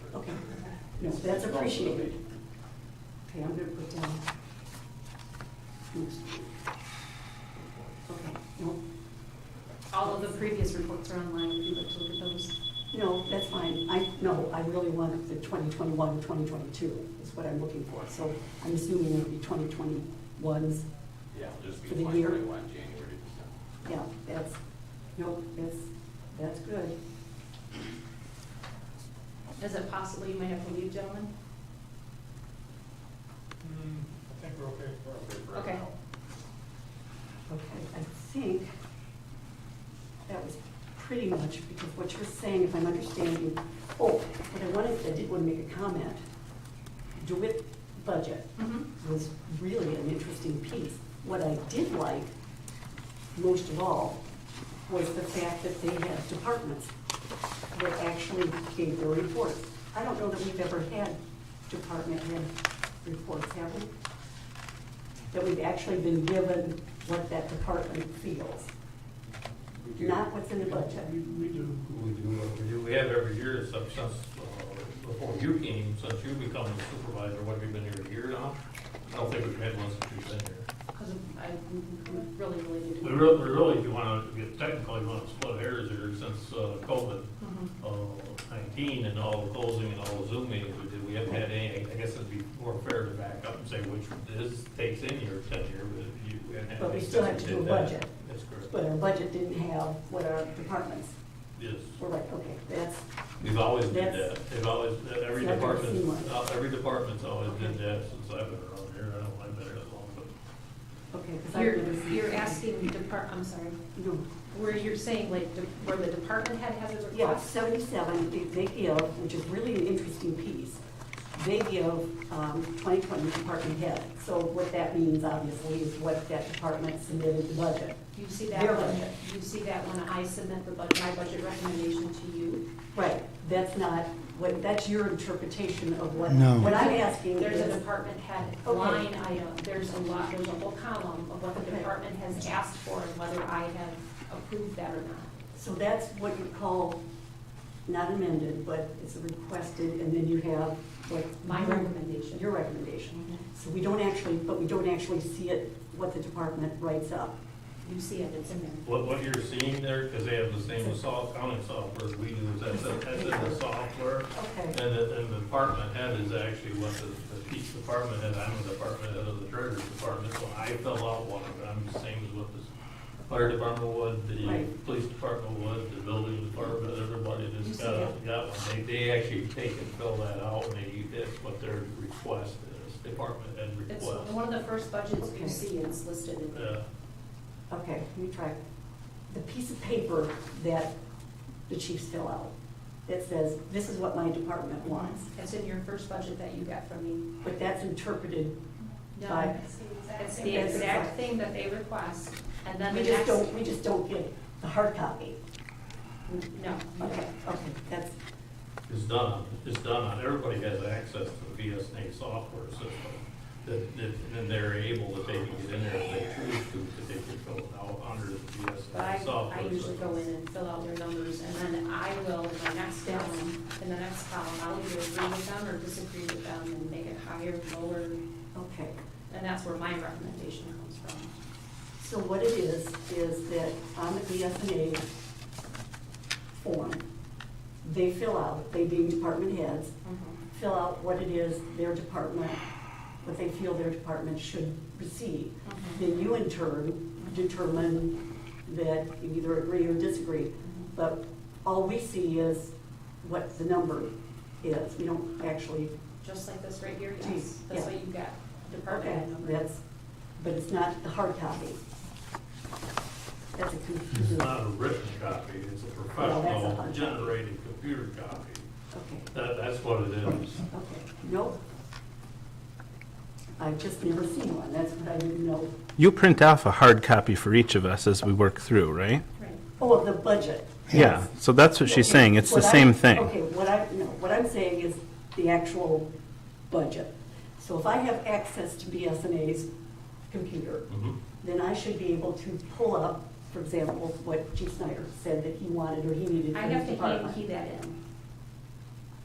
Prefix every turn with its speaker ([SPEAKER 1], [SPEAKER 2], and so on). [SPEAKER 1] No, that's
[SPEAKER 2] It's also
[SPEAKER 1] appreciated.
[SPEAKER 2] the-
[SPEAKER 1] Okay, I'm gonna put down. next one. Okay, no,
[SPEAKER 3] All of the previous reports are online, if you'd like to look at those.
[SPEAKER 1] no, that's fine. I, no, I really want the 2021, 2022 is what I'm looking for. So I'm assuming it'll be 2021s.
[SPEAKER 2] Yeah, it'll just be
[SPEAKER 1] For the year?
[SPEAKER 2] 2021, January to December.
[SPEAKER 1] Yeah, that's, no, that's, that's good.
[SPEAKER 3] Is it possible you might have to leave, gentlemen?
[SPEAKER 4] Mm, I think we're okay.
[SPEAKER 2] We're for
[SPEAKER 3] Okay.
[SPEAKER 2] now.
[SPEAKER 1] Okay, I think that was pretty much, because what you're saying, if I'm understanding, oh, what I wanted, I did want to make a comment. DeWitt budget
[SPEAKER 3] Mm-hmm.
[SPEAKER 1] was really an interesting piece. What I did like, most of all, was the fact that they had departments that actually gave their reports. I don't know that we've ever had department head reports, have we? That we've actually been given what that department feels.
[SPEAKER 5] We do.
[SPEAKER 1] Not what's in the budget.
[SPEAKER 5] We we do.
[SPEAKER 6] We do what we do, we have every year since, since, uh, before you came, since you become the supervisor, what, you've been here a year now? I don't think we've had one since you've been here.
[SPEAKER 3] Because I'm mm, really related to.
[SPEAKER 6] We really, we really, if you wanna get technical, you wanna split hairs here since, uh, COVID,
[SPEAKER 3] Mhm.
[SPEAKER 6] uh, nineteen and all the closing and all the Zoom meetings we did, we haven't had any, I guess it'd be more fair to back up and say which is, takes in your tenure, but you. we haven't had
[SPEAKER 1] But we
[SPEAKER 6] any
[SPEAKER 1] still have to
[SPEAKER 6] since
[SPEAKER 1] do a
[SPEAKER 6] did that.
[SPEAKER 1] budget.
[SPEAKER 6] That's correct,
[SPEAKER 1] But our budget didn't have what our departments
[SPEAKER 6] yes.
[SPEAKER 1] were like, okay, that's,
[SPEAKER 6] We've always did
[SPEAKER 1] That's-
[SPEAKER 6] that, they've always, every
[SPEAKER 1] It's never been
[SPEAKER 6] department,
[SPEAKER 1] seen
[SPEAKER 6] uh, every department's always did that since I've been around here, I don't, I've been here that long, but.
[SPEAKER 1] okay, because I remember.
[SPEAKER 3] You're,
[SPEAKER 1] seeing-
[SPEAKER 3] you're asking depart, I'm sorry,
[SPEAKER 1] No,
[SPEAKER 3] where you're saying like, de- where the department head has a
[SPEAKER 1] Yeah,
[SPEAKER 3] request?
[SPEAKER 1] seventy-seven, they- they give, which is really an interesting piece, they give um, 2020 department head. So what that means, obviously, is what that department submitted the budget.
[SPEAKER 3] You see that
[SPEAKER 1] Their
[SPEAKER 3] one,
[SPEAKER 1] budget.
[SPEAKER 3] you see that when I submit the budget, my budget recommendation to you?
[SPEAKER 1] Right, that's not, what, that's your interpretation of what,
[SPEAKER 7] No.
[SPEAKER 1] what I'm asking
[SPEAKER 3] There's a
[SPEAKER 1] is,
[SPEAKER 3] department head
[SPEAKER 1] Okay.
[SPEAKER 3] line item, there's a lot, there's a whole column of what the
[SPEAKER 1] Okay.
[SPEAKER 3] department has asked for and whether I have approved that or not.
[SPEAKER 1] so that's what you call, not amended, but it's requested, and then you have what.
[SPEAKER 3] My recommendation.
[SPEAKER 1] Your recommendation. So we don't actually, but we don't actually see it, what the department writes up.
[SPEAKER 3] You see it, it's in there.
[SPEAKER 6] What, what you're seeing there, because they have the same sol- accounting software as we do, is that's, that's in the software.
[SPEAKER 1] Okay,
[SPEAKER 6] And the, and the department head is actually what the, the each department head, I'm a department head of the treasurer's department, so I fill out one of them, the same as what this fire department would, the
[SPEAKER 1] Right.
[SPEAKER 6] police department would, the building department, everybody
[SPEAKER 3] You
[SPEAKER 6] just
[SPEAKER 3] see
[SPEAKER 6] got,
[SPEAKER 3] that?
[SPEAKER 6] got one. They, they actually take and fill that out, and they, that's what their request is, department head
[SPEAKER 3] It's
[SPEAKER 6] request.
[SPEAKER 3] one of the first budgets
[SPEAKER 1] Okay.
[SPEAKER 3] you see, and it's listed in there.
[SPEAKER 6] Yeah.
[SPEAKER 1] okay, let me try. The piece of paper that the chiefs fill out, that says, this is what my department
[SPEAKER 3] Mhm.
[SPEAKER 1] wants,
[SPEAKER 3] It's in your first budget that you got from me.
[SPEAKER 1] but that's interpreted,
[SPEAKER 3] No,
[SPEAKER 1] Right.
[SPEAKER 3] it's the exact thing that they request, and then the
[SPEAKER 1] we just
[SPEAKER 3] next.
[SPEAKER 1] don't, we just don't get the hard copy.
[SPEAKER 3] No.
[SPEAKER 1] Okay, okay, that's,
[SPEAKER 6] is done, is done on, everybody has access to the VSNA software system. That, that, and they're able, that they can get in there if they choose to, that they can fill it out under the
[SPEAKER 3] But I,
[SPEAKER 6] VSNA software.
[SPEAKER 3] I usually
[SPEAKER 6] system.
[SPEAKER 3] go in and fill out their numbers, and then I will, in my next column, in the next column, I'll either agree with them or disagree with them and make it higher, lower,
[SPEAKER 1] okay.
[SPEAKER 3] and that's where my recommendation comes from.
[SPEAKER 1] So what it is, is that on the BSNA form, they fill out, they being department heads, fill out what it is their department, what they feel their department should receive.
[SPEAKER 3] Mhm.
[SPEAKER 1] Then you in turn determine that you either agree or disagree.
[SPEAKER 3] Mm-hmm.
[SPEAKER 1] But all we see is what the number is. We don't actually,
[SPEAKER 3] Just like this right here, yes,
[SPEAKER 1] Geez,
[SPEAKER 3] that's
[SPEAKER 1] yeah.
[SPEAKER 3] what you got, department
[SPEAKER 1] okay,
[SPEAKER 3] head number.
[SPEAKER 1] that's, but it's not the hard copy. That's a
[SPEAKER 6] It's
[SPEAKER 1] confusing.
[SPEAKER 6] not a written copy, it's a professional generated computer copy.
[SPEAKER 1] Okay.
[SPEAKER 6] That, that's what it is.
[SPEAKER 1] Okay, nope. I've just never seen one, that's what I didn't know.
[SPEAKER 8] You print off a hard copy for each of us as we work through, right?
[SPEAKER 3] Right.
[SPEAKER 1] Oh, of the budget.
[SPEAKER 8] Yeah, so that's what she's saying, it's the
[SPEAKER 1] What I-
[SPEAKER 8] same thing.
[SPEAKER 1] Okay, what I, no, what I'm saying is the actual budget. So if I have access to BSNA's computer,
[SPEAKER 6] Mhm.
[SPEAKER 1] then I should be able to pull up, for example, what Chief Snyder said that he wanted or he needed
[SPEAKER 3] I
[SPEAKER 1] for
[SPEAKER 3] have
[SPEAKER 1] his
[SPEAKER 3] to hand key
[SPEAKER 1] department.
[SPEAKER 3] that in.